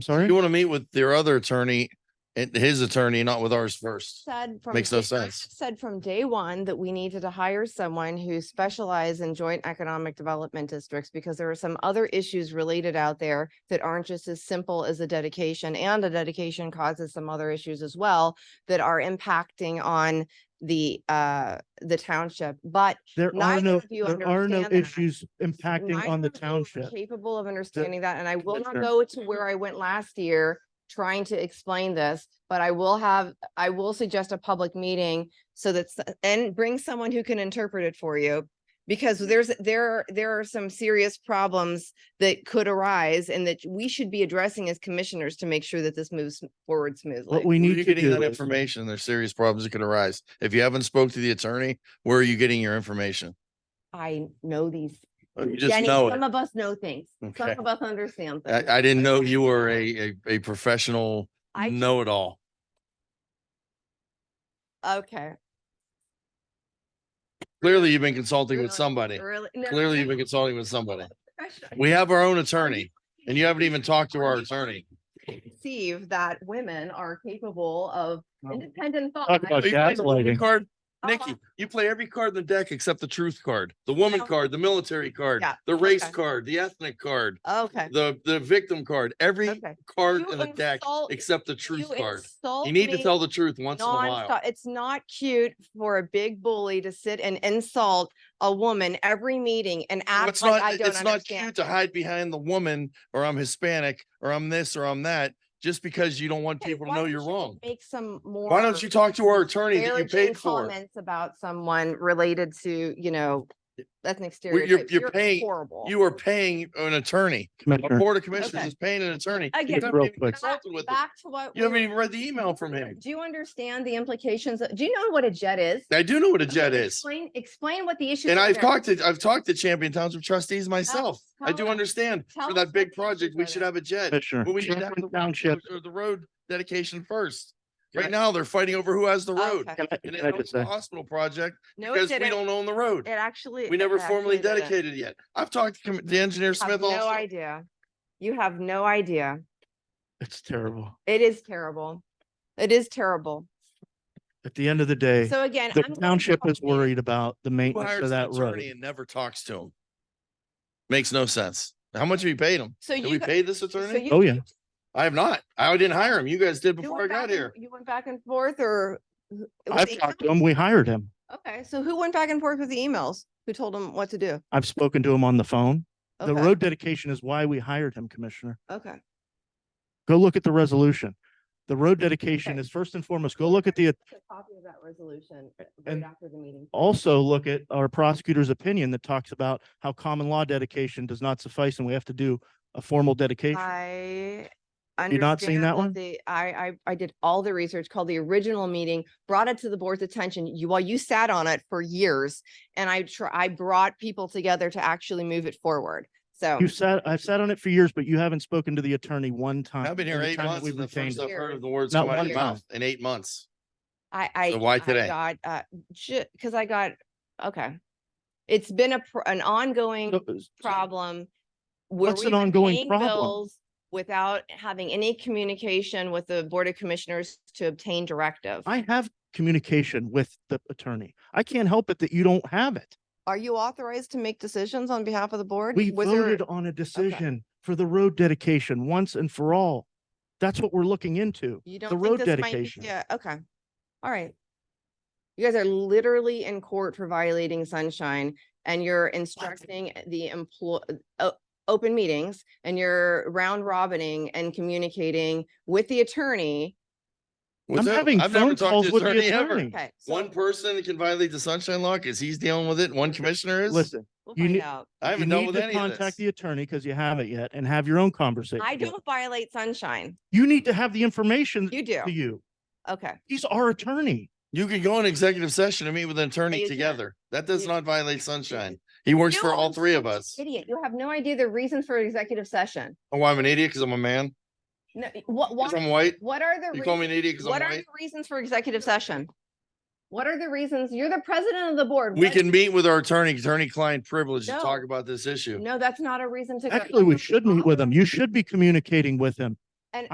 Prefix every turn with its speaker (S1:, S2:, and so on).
S1: sorry?
S2: You want to meet with their other attorney and his attorney, not with ours first.
S3: said from.
S2: Makes no
S3: day- I
S2: sense.
S3: Said from day one that we needed to hire someone who specialized in joint economic development districts because there are some other issues related out there that aren't just as simple as a dedication and a dedication causes some other issues as well that are impacting on the uh, the township, but
S1: There are
S3: neither
S1: no,
S3: of you
S1: there are no
S3: understand that.
S1: issues impacting on
S3: neither
S1: the
S3: of you are
S1: township.
S3: Capable of understanding that, and I will not
S1: Commissioner.
S3: go to where I went last year trying to explain this, but I will have, I will suggest a public meeting so that's, and bring someone who can interpret it for you. Because
S1: Mm.
S3: there's, there, there are some serious problems that could arise and that we should be addressing as commissioners to make sure that this moves forward smoothly.
S1: What we
S2: Where are
S1: need
S2: you
S1: to
S2: getting
S1: do
S2: that
S1: is,
S2: information? There's serious problems that could arise. If you haven't spoke to the attorney, where are you getting your information?
S3: I know these.
S2: Oh, You just
S3: Jenny,
S2: know
S3: Some
S2: it.
S3: of us know things. Some
S2: Okay.
S3: of us understand. things.
S2: I, I didn't know you were a, a, a professional
S3: I-
S2: know-it-all.
S3: Okay.
S2: Clearly, you've been consulting with
S3: Really?
S2: somebody.
S3: Really? No,
S2: Clearly, you've
S3: no.
S2: been consulting with somebody.
S3: Professional.
S2: We have our own attorney and you haven't even talked to our attorney.
S3: perceive that women are capable of
S1: No.
S3: independent thought.
S1: talk about
S2: Are you guys-
S1: gaslighting.
S2: Card,
S3: Uh,
S2: Nikki, you play every card in the deck except the truth card, the woman
S3: Yeah.
S2: card, the military card,
S3: Yeah,
S2: the race
S3: okay.
S2: card, the ethnic card,
S3: Okay,
S2: the, the victim card, every
S3: okay.
S2: card
S3: You
S2: in the deck
S3: insult-
S2: except the
S3: You
S2: truth card.
S3: insult
S2: You need to
S3: me
S2: tell the truth once in a while.
S3: nonstop. It's not cute for a big bully to sit and insult a woman every meeting and
S2: Well,
S3: act
S2: It's
S3: like I
S2: not,
S3: don't
S2: it's not cute
S3: understand.
S2: to hide behind the woman or I'm Hispanic or I'm this or I'm that, just because you don't want
S3: Okay,
S2: people to
S3: why
S2: know
S3: don't
S2: you're
S3: you
S2: wrong.
S3: Make some more.
S2: Why don't you talk to our attorney that you
S3: disparaging
S2: paid for?
S3: Comments about someone related to, you know, ethnic stereotypes.
S2: you're paying-
S3: Horrible.
S2: You are paying an attorney. Our
S1: Commissioner,
S2: board of commissioners
S3: Okay.
S2: is paying an attorney. You
S3: Again,
S2: haven't
S1: Real
S2: even
S1: quick.
S2: consulted with him.
S3: Back to what.
S2: You
S3: we
S2: haven't
S3: were-
S2: even read the email from him.
S3: Do you understand the implications? of- Do you know what a jet is?
S2: I do know what a
S3: Okay,
S2: jet is.
S3: Explain, explain what the issue.
S2: And I've talked to, I've talked to Champion Township trustees
S3: Oh,
S2: myself. I
S3: tell
S2: do
S3: us-
S2: understand
S3: tell
S2: for
S3: us
S2: that
S3: what
S2: big
S3: the
S2: project,
S3: issues
S2: we
S3: are
S2: should
S3: then.
S2: have a jet.
S1: Commissioner,
S2: But we should have
S1: Champlin
S2: the
S1: Township,
S2: Or the road dedication first. Right
S1: Right.
S2: now, they're fighting over who has the road.
S1: can I,
S2: And
S1: can I
S2: it's
S1: just
S2: the
S1: say,
S2: hospital project
S3: No, it
S2: because we
S3: didn't.
S2: don't own the
S3: It
S2: road.
S3: actually.
S2: We
S3: it
S2: never
S3: actually
S2: formally
S3: didn't.
S2: dedicated yet. I've talked to com- the engineer
S3: You have
S2: Smith
S3: No
S2: also.
S3: idea. You have no idea.
S1: it's terrible.
S3: It is terrible. It is terrible.
S1: At the end of the day,
S3: So again.
S1: the
S3: I'm going to
S1: township is
S3: call meeting.
S1: worried about the
S2: Who
S1: maintenance
S2: hires
S1: of
S2: an
S1: that
S2: attorney
S1: road.
S2: and never talks to him? Makes no sense. How much have you paid him?
S3: So
S2: Did
S3: you.
S2: we
S3: gu-
S2: pay this
S3: so
S2: attorney?
S3: you-
S1: Oh, yeah.
S3: you-
S2: I have not. I didn't hire him. You guys did
S3: you
S2: before I
S3: went
S2: got
S3: back and-
S2: here.
S3: You went back and forth or? who- it was the
S1: I've talked to
S3: emails?
S1: him. We hired him.
S3: Okay, so who went back and forth with the emails? Who told them what to do?
S1: I've spoken to him on the phone. The
S3: Okay,
S1: road dedication is why we hired him, Commissioner.
S3: Okay.
S1: Go look at the resolution. The road dedication
S3: Okay.
S1: is first and foremost, go look at the,
S3: A copy of that resolution right
S1: And-
S3: after the meeting.
S1: also look at our prosecutor's opinion that talks about how common law dedication does not suffice and we have to do a formal dedication.
S3: I.
S1: You not seen
S3: understand
S1: that one?
S3: The, I, I, I did all the research, called the original meeting, brought it to the board's attention. You, while you sat on it for years. And I try, I brought people together to actually move it forward. So
S1: You sat, I've sat on it for years, but you haven't spoken to the attorney one time.
S2: I've been
S1: in
S2: here
S1: the
S2: eight
S1: time that
S2: months.
S1: we've
S2: and The
S1: retained
S2: first I've
S1: him.
S2: heard of the words
S1: Not
S2: come out of
S1: one
S2: your
S1: time.
S2: mouth in eight months.
S3: I, I.
S2: So why
S3: I
S2: today?
S3: Got, uh, ju- cause I got, okay. It's been a, pr- an ongoing
S1: So- so-
S3: problem. where
S1: What's
S3: we've
S1: an
S3: been
S1: ongoing
S3: paying
S1: problem?
S3: bills Without having any communication with the Board of Commissioners to obtain directive.
S1: I have communication with the attorney. I can't help it that you don't have it.
S3: Are you authorized to make decisions on behalf of the board?
S1: We
S3: Was there-
S1: voted on a decision for the road dedication once and for all. That's what we're looking into.
S3: You
S1: the
S3: don't
S1: road
S3: think this might, be-
S1: dedication.
S3: yeah, okay. All right. You guys are literally in court for violating sunshine and you're instructing the employ, uh, open meetings and you're round robining and communicating with the attorney.
S2: Was
S1: I'm
S2: that-
S1: having
S2: I've never
S1: phone
S2: talked to
S1: calls with the
S2: ever.
S1: attorney.
S3: Okay. so
S2: One person that can violate the sunshine law because he's dealing with it. One commissioner is.
S1: Listen,
S3: We'll
S1: you
S3: find
S1: need-
S3: out.
S2: I
S1: you
S2: haven't dealt
S1: need
S2: with
S1: to
S2: any of
S1: contact
S2: this.
S1: the attorney because you haven't yet and have your own conversation.
S3: I
S1: with him.
S3: don't violate sunshine.
S1: You need to have the information
S3: You do.
S1: to you.
S3: Okay.
S1: He's our attorney.
S2: You can go in executive session and meet with an attorney
S3: you can't.
S2: together. That does
S3: You-
S2: not violate sunshine. He works for
S3: No,
S2: all
S3: I'm
S2: three of
S3: such
S2: us.
S3: Idiot, you have no idea the reasons for executive session.
S2: Oh, I'm an idiot because I'm a man.
S3: No, what,
S2: Because I'm
S3: why?
S2: white.
S3: what are the?
S2: You call me an
S3: reasons-
S2: idiot because I'm
S3: What are the
S2: white.
S3: reasons for executive session? What are the reasons? You're the president of the board.
S2: We
S3: What-
S2: can meet with our attorney, attorney-client privilege to
S3: No.
S2: talk about this issue.
S3: No, that's not a reason to. go.
S1: Actually, we should meet with him. You should be communicating with him.